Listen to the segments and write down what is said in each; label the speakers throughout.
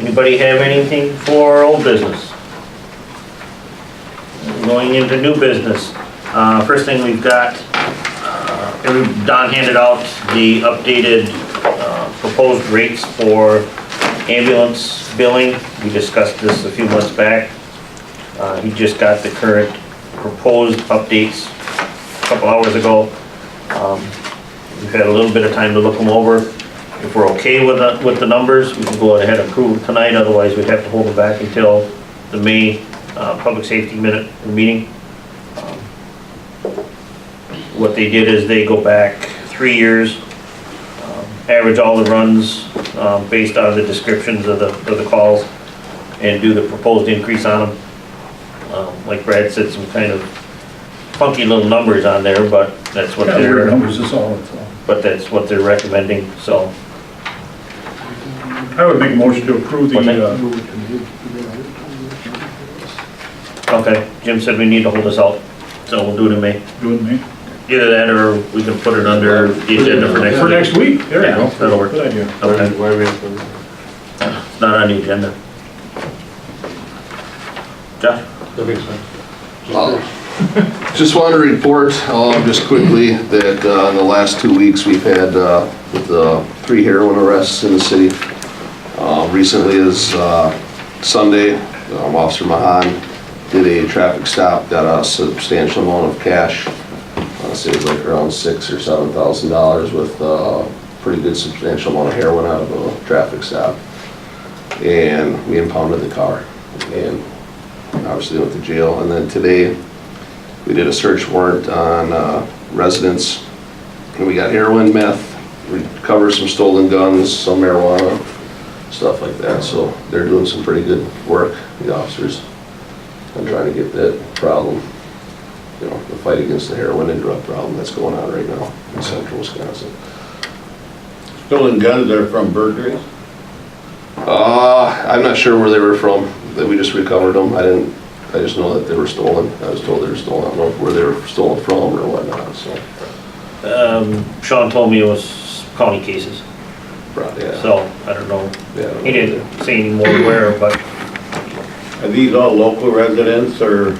Speaker 1: Anybody have anything for old business? Going into new business, uh, first thing we've got, uh, every- Don handed out the updated uh, proposed rates for ambulance billing. We discussed this a few months back. Uh, He just got the current proposed updates a couple hours ago. Um, We've had a little bit of time to look them over. If we're okay with the, with the numbers, we can go ahead and approve them tonight, otherwise we'd have to hold them back until the May uh, Public Safety Minute meeting. Um, What they did is they go back three years, um, average all the runs um, based on the descriptions of the, of the calls, and do the proposed increase on them. Um, Like Brad said, some kind of funky little numbers on there, but that's what
Speaker 2: Yeah,
Speaker 1: they're
Speaker 2: weird numbers is all, it's all.
Speaker 1: but that's what they're recommending, so.
Speaker 2: I would make a motion to approve the, uh,
Speaker 1: Okay, Jim said we need to hold this out, so we'll do it in May.
Speaker 2: doing me,
Speaker 1: Either that or we can put it under the agenda for next week.
Speaker 2: for next week, there
Speaker 1: Yeah,
Speaker 2: you go.
Speaker 1: that'll work.
Speaker 2: Good idea.
Speaker 1: Okay, it's not on the agenda. Josh?
Speaker 3: That makes sense.
Speaker 4: Just want to report, um, just quickly, that uh, in the last two weeks, we've had uh, with, uh, three heroin arrests in the city. Uh, Recently is uh, Sunday, um, Officer Mahan did a traffic stop, got a substantial amount of cash. I say it was like around six or seven thousand dollars with uh, pretty good substantial amount of heroin out of a traffic stop. And we impounded the car and obviously went to jail. And then today, we did a search warrant on uh, residents, and we got heroin, meth, recovered some stolen guns, some marijuana, stuff like that, so they're doing some pretty good work, the officers, on trying to get that problem, you know, the fight against the heroin and drug problem that's going on right now in central Wisconsin.
Speaker 3: Stolen guns are from burglaries?
Speaker 4: Uh, I'm not sure where they were from, that we just recovered them, I didn't, I just know that they were stolen, I was told they were stolen, I don't know where they were stolen from or whatnot, so,
Speaker 1: Um, Sean told me it was county cases,
Speaker 4: yeah.
Speaker 1: so I don't know.
Speaker 4: yeah, I don't know.
Speaker 1: He didn't say any more where, but
Speaker 3: Are these all local residents or?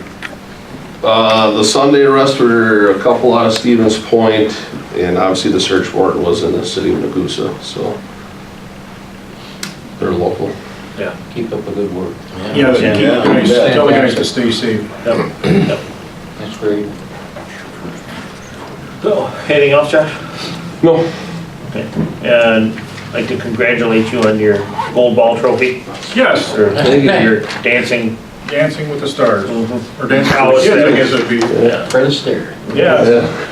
Speaker 4: Uh, the Sunday arrests were a couple out of Stevens Point, and obviously the search warrant was in the city of Nagusa, so they're local.
Speaker 1: yeah.
Speaker 5: Keep up the good work.
Speaker 2: Yeah,
Speaker 1: Yeah.
Speaker 2: keep the guys, tell the guys to stay safe.
Speaker 1: Yep, yep.
Speaker 5: That's great.
Speaker 1: So, anything else, Josh?
Speaker 4: No.
Speaker 1: Okay. And I'd like to congratulate you on your gold ball trophy,
Speaker 2: Yes,
Speaker 1: or
Speaker 4: Thank you.
Speaker 1: your dancing.
Speaker 2: Dancing with the Stars,
Speaker 1: Mhm.
Speaker 2: or Dancing with the Kids, I guess it'd be,
Speaker 5: Fred Astaire.
Speaker 2: yeah,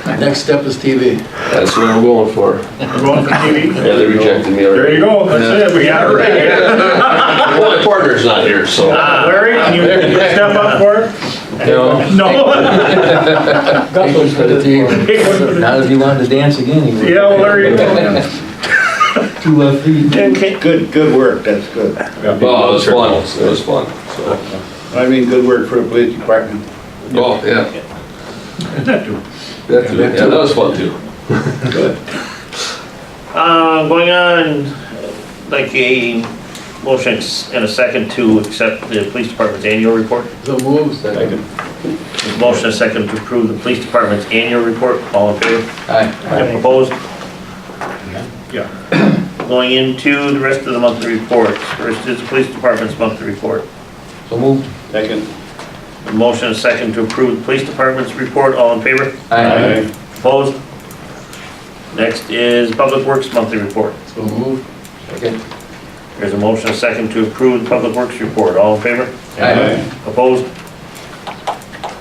Speaker 4: Yeah,
Speaker 5: Next step is TV.
Speaker 4: that's what I'm going for.
Speaker 2: we're going for TV.
Speaker 4: Yeah, they rejected me
Speaker 2: There you
Speaker 4: already.
Speaker 2: go, that's it, we got it right.
Speaker 4: Well, my partner's not here, so.
Speaker 1: Ah,
Speaker 2: Larry, can you step up for it? No,
Speaker 5: Take one for the team.
Speaker 2: Take one for the-
Speaker 5: Not if he wanted to dance again, he would.
Speaker 2: yeah, Larry.
Speaker 5: Two left feet.
Speaker 3: Good, good work, that's good.
Speaker 4: Well, Oh, it was fun, it was fun, so.
Speaker 3: I mean, good work for the police department.
Speaker 4: Oh, yeah,
Speaker 2: That dude.
Speaker 4: that too, yeah, that was fun too.
Speaker 3: Good.
Speaker 1: Uh, going on, like a motion and a second to accept the police department's annual report.
Speaker 5: So moves.
Speaker 3: Second.
Speaker 1: Motion and second to approve the police department's annual report. All in favor?
Speaker 5: Aye.
Speaker 1: And Opposed?
Speaker 2: Yeah.
Speaker 1: Going into the rest of the monthly reports. First is the police department's monthly report.
Speaker 5: So moved.
Speaker 3: Second.
Speaker 1: Motion and second to approve the police department's report. All in favor?
Speaker 3: Aye.
Speaker 1: Opposed? Next is public works monthly report.
Speaker 5: So moved. Second.
Speaker 1: There's a motion and second to approve the public works report. All in favor? Opposed?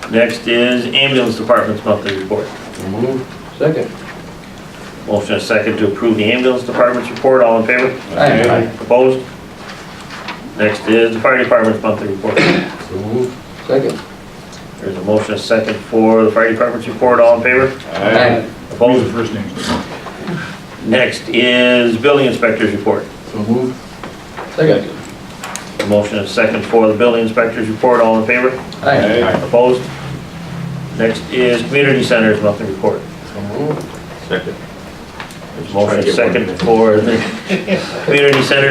Speaker 1: Next is ambulance department's monthly report.
Speaker 5: So moved. Second.
Speaker 1: Motion is second to approve the ambulance department's report, all in favor?
Speaker 5: Aye.
Speaker 1: Opposed? Next is the fire department's monthly report.
Speaker 5: So moved. Second.
Speaker 1: There's a motion is second for the fire department's report, all in favor?
Speaker 2: Who's the
Speaker 1: Opposed?
Speaker 2: first name?
Speaker 1: Next is building inspector's report.
Speaker 5: So moved. Second.
Speaker 1: A motion is second for the building inspector's report, all in favor?
Speaker 5: Aye.
Speaker 1: Opposed? Next is community center's monthly report.
Speaker 5: So moved.
Speaker 3: Second.
Speaker 1: There's a motion is second for the community center's